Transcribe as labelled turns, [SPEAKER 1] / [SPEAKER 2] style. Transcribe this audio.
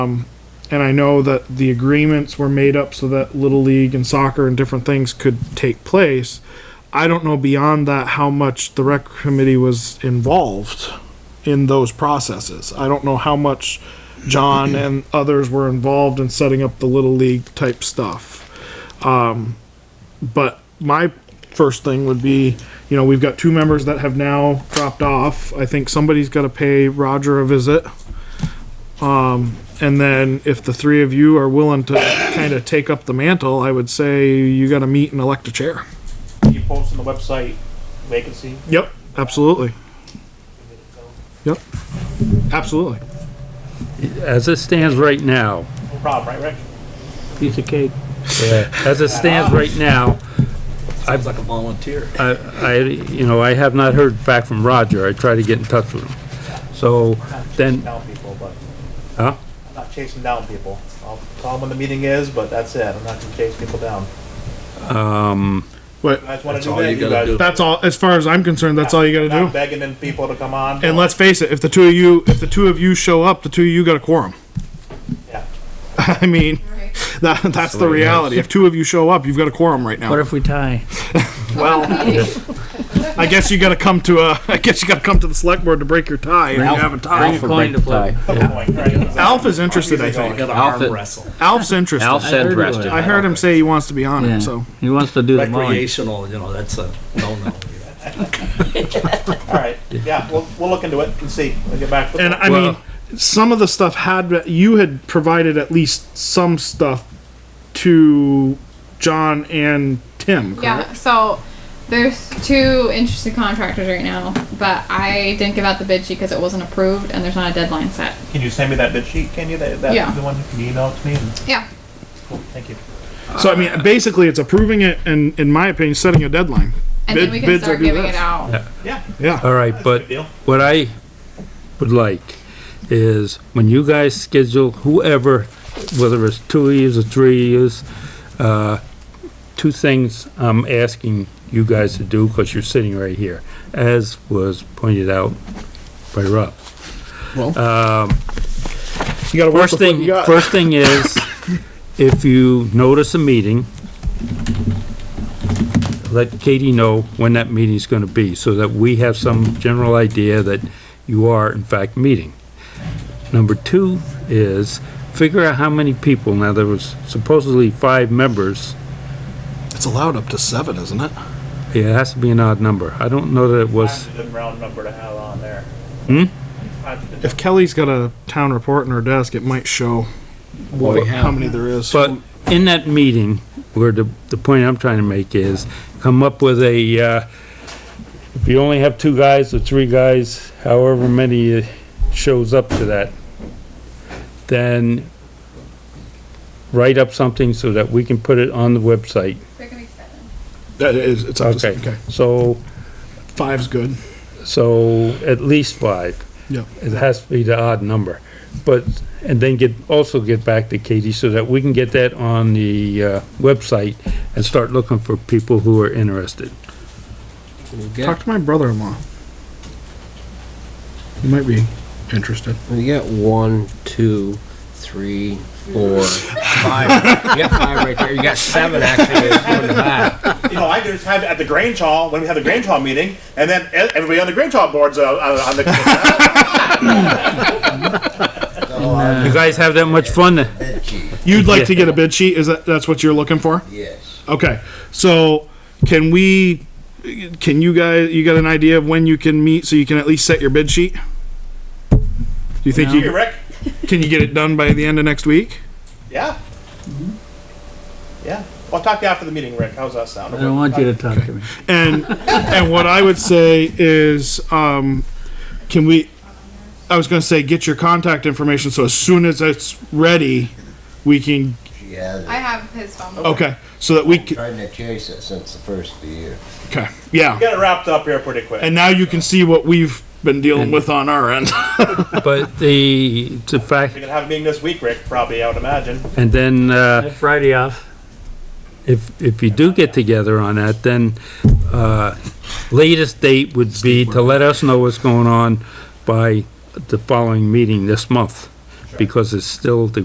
[SPEAKER 1] Um, and I know that the agreements were made up so that little league and soccer and different things could take place. I don't know beyond that how much the rec committee was involved in those processes. I don't know how much John and others were involved in setting up the little league type stuff. Um, but my first thing would be, you know, we've got two members that have now dropped off. I think somebody's got to pay Roger a visit. And then if the three of you are willing to kind of take up the mantle, I would say you gotta meet and elect a chair.
[SPEAKER 2] You post on the website vacancy.
[SPEAKER 1] Yep. Absolutely. Yep. Absolutely.
[SPEAKER 3] As it stands right now,
[SPEAKER 2] No problem, right, Rick?
[SPEAKER 4] piece of cake.
[SPEAKER 3] as it stands right now,
[SPEAKER 5] Sounds like a volunteer.
[SPEAKER 3] I, I, you know, I have not heard back from Roger. I tried to get in touch with him. So
[SPEAKER 2] Not chasing
[SPEAKER 3] then,
[SPEAKER 2] Down people, but
[SPEAKER 3] huh?
[SPEAKER 2] I'm not chasing down people. I'll tell them when the meeting is, but that's it. I'm not gonna chase people down.
[SPEAKER 1] But
[SPEAKER 2] You guys wanna
[SPEAKER 5] That's
[SPEAKER 2] do
[SPEAKER 5] all
[SPEAKER 2] that,
[SPEAKER 5] you
[SPEAKER 2] you
[SPEAKER 5] gotta
[SPEAKER 2] guys.
[SPEAKER 5] do.
[SPEAKER 1] that's all, as far as I'm concerned, that's all you gotta
[SPEAKER 2] Not
[SPEAKER 1] do.
[SPEAKER 2] begging in people to come on.
[SPEAKER 1] And let's face it, if the two of you, if the two of you show up, the two of you got a quorum.
[SPEAKER 2] Yeah.
[SPEAKER 1] I mean, that, that's the reality. If two of you show up, you've got a quorum right
[SPEAKER 4] What
[SPEAKER 1] now.
[SPEAKER 4] if we tie?
[SPEAKER 1] I guess you gotta come to a, I guess you gotta come to the select board to break your tie if you have a tie.
[SPEAKER 4] coin to play.
[SPEAKER 1] Alf is interested, I think.
[SPEAKER 5] Outfit.
[SPEAKER 1] Alf's interested.
[SPEAKER 6] Alf said
[SPEAKER 4] heard
[SPEAKER 6] rest.
[SPEAKER 4] it.
[SPEAKER 6] it.
[SPEAKER 1] I heard him say he wants to be on
[SPEAKER 4] Yeah.
[SPEAKER 1] it, so.
[SPEAKER 4] He wants to do the mowing.
[SPEAKER 5] Recreational, you know, that's a no-no.
[SPEAKER 2] All right, yeah, we'll, we'll look into it and see. We'll get back.
[SPEAKER 1] And I
[SPEAKER 3] Well-
[SPEAKER 1] mean, some of the stuff had you had provided at least some stuff to John and Tim. Correct?
[SPEAKER 7] Yeah, so there's two interested contractors right now, but I didn't give out the bid sheet because it wasn't approved and there's not a deadline set.
[SPEAKER 2] Can you send me that bid sheet? Can you? That,
[SPEAKER 7] Yeah.
[SPEAKER 2] that's the one, can you email it to me? And-
[SPEAKER 7] Yeah.
[SPEAKER 2] Cool, Thank you.
[SPEAKER 1] So I mean, basically, it's approving it, and in my opinion, setting a deadline.
[SPEAKER 7] And
[SPEAKER 1] Bid-
[SPEAKER 7] then we can
[SPEAKER 1] bids are
[SPEAKER 7] start
[SPEAKER 1] due
[SPEAKER 7] giving
[SPEAKER 1] this.
[SPEAKER 7] it out.
[SPEAKER 2] Yeah,
[SPEAKER 1] Yeah.
[SPEAKER 3] All right,
[SPEAKER 2] good
[SPEAKER 3] but
[SPEAKER 2] deal.
[SPEAKER 3] what I would like is when you guys schedule whoever, whether it's two years or three years, uh, two things I'm asking you guys to do, because you're sitting right here, as was pointed out by Rob.
[SPEAKER 1] You got to work with
[SPEAKER 3] First
[SPEAKER 1] what
[SPEAKER 3] thing,
[SPEAKER 1] you got.
[SPEAKER 3] first thing is, if you notice a meeting, let Katie know when that meeting's gonna be, so that we have some general idea that you are in fact meeting. Number two is, figure out how many people, now there was supposedly five members,
[SPEAKER 1] It's allowed up to seven, isn't it?
[SPEAKER 3] it has to be an odd number, I don't know that it was,
[SPEAKER 2] That's a good round number to have on there. Hmm?
[SPEAKER 1] If Kelly's got a town report in her desk, it might show what, how many there is.
[SPEAKER 3] but in that meeting, where the, the point I'm trying to make is, come up with a, uh, if you only have two guys or three guys, however many uh, shows up to that, then write up something so that we can put it on the website.
[SPEAKER 7] There could be seven.
[SPEAKER 1] that is, it's up to okay.
[SPEAKER 3] So,
[SPEAKER 1] Five's good.
[SPEAKER 3] so at least five.
[SPEAKER 1] Yeah.
[SPEAKER 3] It has to be the odd number. But, and then get, also get back to Katie so that we can get that on the, uh, website and start looking for people who are interested.
[SPEAKER 6] We'll
[SPEAKER 1] Talk
[SPEAKER 6] get,
[SPEAKER 1] to my brother-in-law. He might be interested.
[SPEAKER 6] we get one, two, three, four, five. You got five right there. You got seven actually. There's two in the back.
[SPEAKER 2] You know, I could just have it at the Grange Hall, when we have the Grange Hall meeting, and then e- everybody on the Grange Hall boards uh, on on the.
[SPEAKER 4] Uh-huh.
[SPEAKER 3] You guys have that much fun?
[SPEAKER 1] You'd like to get a bid sheet? Is that that's what you're looking for?
[SPEAKER 5] Yes.
[SPEAKER 1] Okay, so can we, can you guys, you got an idea of when you can meet so you can at least set your bid sheet? Do you think
[SPEAKER 2] Here,
[SPEAKER 1] you,
[SPEAKER 2] Rick,
[SPEAKER 1] can you get it done by the end of next week?
[SPEAKER 2] yeah? Yeah, well, I'll talk to you after the meeting, Rick, how's that sound?
[SPEAKER 4] I don't want you to talk to me.
[SPEAKER 1] And, and what I would say is, um, can we, I was gonna say, get your contact information, so as soon as it's ready, we can,
[SPEAKER 8] Yeah,
[SPEAKER 7] I have his phone. number.
[SPEAKER 1] okay, so that we
[SPEAKER 8] they're
[SPEAKER 1] can,
[SPEAKER 8] trying to chase it since the first of the year.
[SPEAKER 1] okay, yeah.
[SPEAKER 2] Get it wrapped up here pretty quick.
[SPEAKER 1] And now you can see what we've been dealing with on our end.
[SPEAKER 3] But the, the fact,
[SPEAKER 2] We're gonna have a meeting this week, Rick, probably, I would imagine.
[SPEAKER 3] and then, uh,
[SPEAKER 4] Friday off.
[SPEAKER 3] if, if you do get together on that, then, uh, latest date would be to let us know what's going on by the following meeting this month. because it's still, the